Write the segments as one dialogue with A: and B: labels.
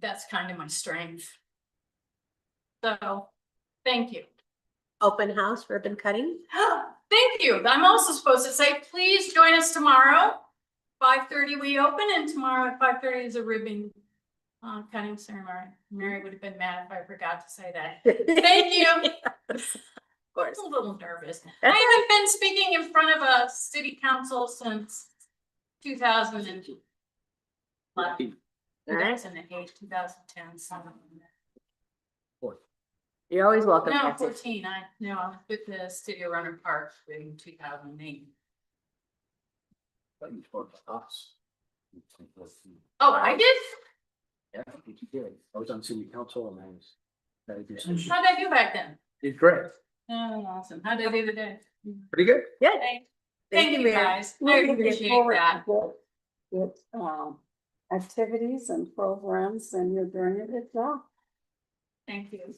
A: that's kind of my strength. So, thank you.
B: Open house ribbon cutting.
A: Thank you. I'm also supposed to say, please join us tomorrow. Five thirty we open and tomorrow at five thirty is a ribbon uh, cutting ceremony. Mary would have been mad if I forgot to say that. Thank you.
B: Of course.
A: I'm a little nervous.
B: That's
A: I haven't been speaking in front of a city council since two thousand and eleven. Two
B: All right.
A: thousand and eight, two thousand ten, something. like that.
B: You're always welcome.
A: No,
B: Patsy.
A: fourteen, I, no, I was with the Studio Runner Park in two thousand and eight.
C: But you told us. You told us.
A: Oh, I did?
C: Yeah, you did. I was on city council and I was. that I did some-
A: How'd I do back then?
C: Did great,
A: Oh, awesome. How'd I do today?
C: pretty good.
A: Thank you,
B: Mary.
A: guys. I
D: Moving
A: appreciate
D: forward
A: that.
D: with- With, um, activities and programs and you're doing a good job.
A: Thank you.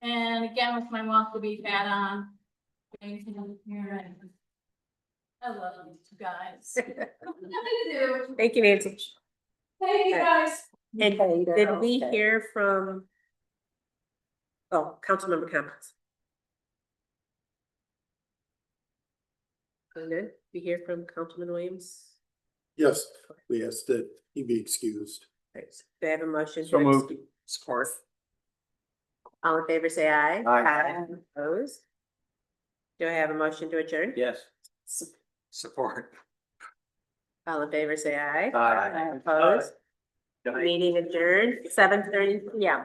A: And again, with my mouth to be fat on. Anything on here, and- I love you guys. Nothing to do.
B: Thank you, Nancy.
A: Thank you, guys.
B: And
D: Okay, they're
B: Did we
D: okay.
B: hear from? Oh, council member comments. Sound Good. We hear from Councilman Williams.
E: Yes, we ask that he be excused.
B: Alright, so Do I have a motion?
C: So
B: to
C: moved.
B: excuse- Support. All in favor, say aye.
C: Aye.
B: Opposed? Do I have a motion to adjourn?
C: Yes.
B: S-
C: Support.
B: All in favor, say aye.
C: Aye.
B: Opposed?
C: Aye.
B: Meeting adjourned, seven thirty, yeah.